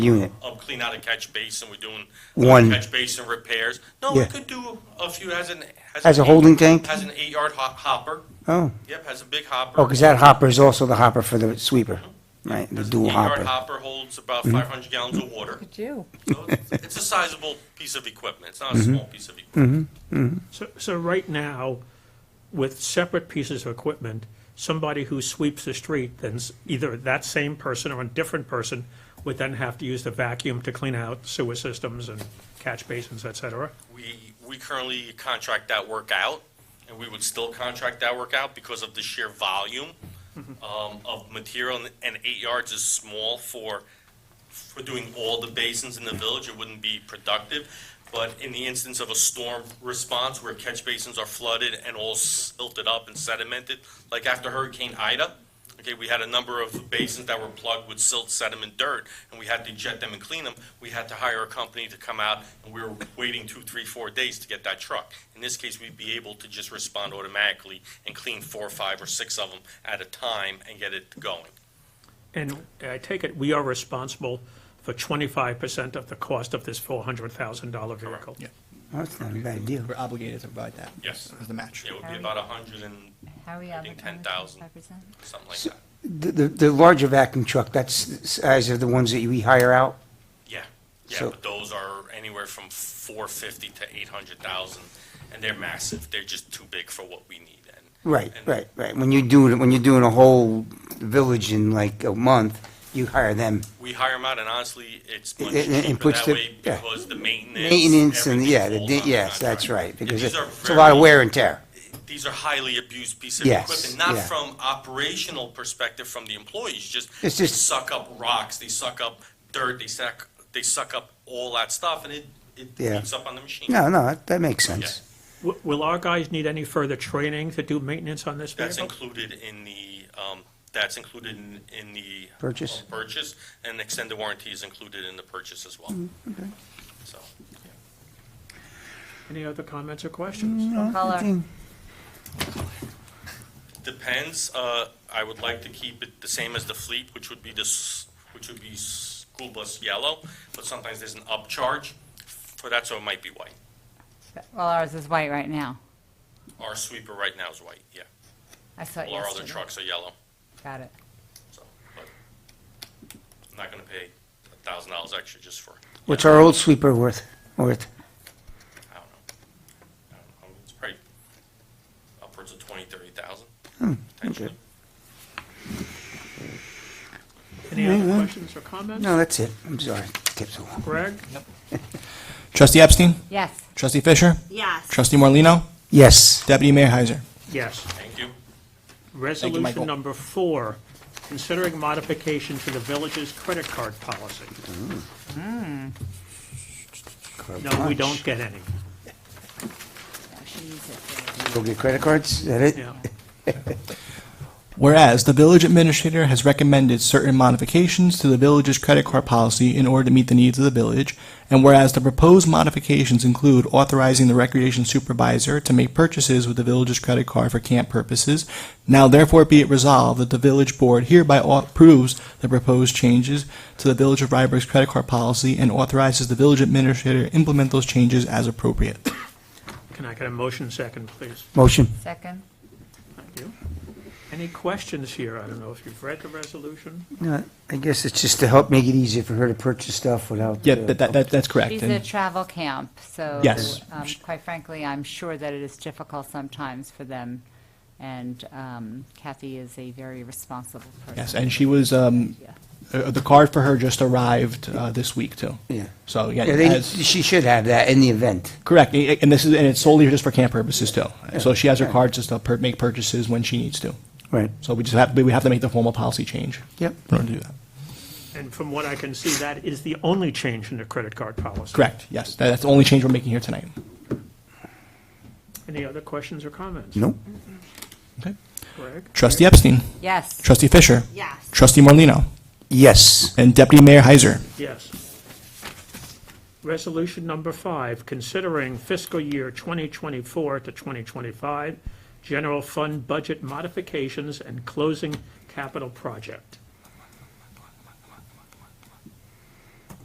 unit. of clean out a catch basin, we're doing. uh, One. Catch basin repairs. No, we Yeah. could do a few, has an. has As a an eight- holding tank? Has an eight-yard ho- hopper. Oh, Yep, has a big hopper. oh, because that hopper is also the hopper for the sweeper, right? The Has an dual Eight-yard hopper. Mm-hmm. hopper holds about five hundred gallons of water. Could you? So it's- It's a sizable piece of equipment. It's not Mm-hmm. a small piece of equipment. So, so right now, with separate pieces of equipment, somebody who sweeps the street, then s- either that same person or a different person would then have to use the vacuum to clean out sewer systems and catch basins, et cetera. Mm. We, we currently contract that work out, and we would still contract that work out because of the sheer volume um, of material, and- and eight yards is small for, for doing all the basins in the village, it wouldn't be productive. But in the instance of a storm response where catch basins are flooded and all silted up and sedimented, like after Hurricane Ida, okay, we had a number of basins that were plugged with silt, sediment, dirt, and we had to jet them and clean them. We had to hire a company to come out, and we were waiting two, three, four days to get that truck. In this case, we'd be able to just respond automatically and clean four, five, or six of them at a time and get it going. And I take it, we are responsible for twenty-five percent of the cost of this four hundred thousand dollar vehicle. Yeah. That's not a bad deal. We're obligated to provide that. Yes. As the match. It would be about a hundred and How are we I think 10,000. advertising 5%? something like that. The, the- the larger vacuum truck, that's the size of the ones that we hire out? Yeah, yeah, So- but those are anywhere from four fifty to eight hundred thousand, and they're massive. They're just too big for what we need. And Right, and- right, right. When you do, when you're doing a whole village in like a month, you hire them. We hire them out, and honestly, it's much And- and- and cheaper puts that the- way yeah. because the maintenance. Maintenance and, everything yeah, the falls di- on the yes, that's contractor. right, because Yeah, it- these are it's a lot of very- wear and tear. These are highly abused pieces of Yes, equipment, not yeah. from operational perspective from the employees, just It's they just- suck up rocks, they suck up dirt, they suck, they suck up all that stuff, and it, it Yeah. eats up on the machine. No, no, that- that makes sense. Will, will our guys need any further training to do maintenance on this That's vehicle? included in the, um, that's included in, in the. Purchase? uh, Purchase, and extended warranty is included in the purchase as well. So, Any other comments or questions? Color. depends, uh, I would like to keep it the same as the fleet, which would be this, which would be school bus yellow, but sometimes there's an upcharge for that, so it might be white. Well, ours is white right now. Our sweeper right now is white, yeah. I saw it All our other yesterday. trucks are yellow, Got it. so, but I'm not gonna pay a thousand dollars extra just for, What's our old sweeper worth, worth? I don't know. I don't know, It's probably upwards of twenty, thirty thousand, potentially. Any other questions or comments? No, that's it. I'm sorry. Tips along. Greg? Trustee Epstein? Yes. Trustee Fisher? Yes. Trustee Morlino, Yes. Deputy Mayor Heiser? Yes. Thank you. Resolution Michael. number four, considering modification to the village's credit card policy. No, we don't get any, Yeah, she needs it. Go get credit cards, is that it? yeah. Whereas the village administrator has recommended certain modifications to the village's credit card policy in order to meet the needs of the village, and whereas the proposed modifications include authorizing the recreation supervisor to make purchases with the village's credit card for camp purposes, now therefore be it resolved that the village board hereby au- approves the proposed changes to the village of Rybrook's credit card policy and authorizes the village administrator to implement those changes as appropriate. Can I get a motion second, please? Motion. Second? Thank you. Any questions here? I don't know if you've read the resolution. No, I guess it's just to help make it easier for her to purchase stuff without. Yeah, uh, that, that, that- that's correct. She's And- a travel camp, so. Yes. um, Quite frankly, I'm sure that it is difficult sometimes for them, and um, Kathy is a very responsible person. Yes, and she was, um, Yeah. uh, the card for her just arrived, uh, this week too. Yeah. So, yeah, Yeah, they, as, she should have that in the event. correct, a- and this is, and it's solely just for camp purposes too. So she has her card just to per- make purchases when she needs to. Right. So we just have, we have to make the formal policy change. Yep. In order to do that. And from what I can see, that is the only change in the credit card policy. Correct, yes, That- that's the only change we're making here tonight. Any other questions or comments? Nope. Okay. Greg? Trustee Epstein, Yes. trustee Fisher, Yes. trustee Morlino, Yes. and deputy mayor Heiser. Yes. Resolution number five, considering fiscal year 2024 to 2025 general fund budget modifications and closing capital project.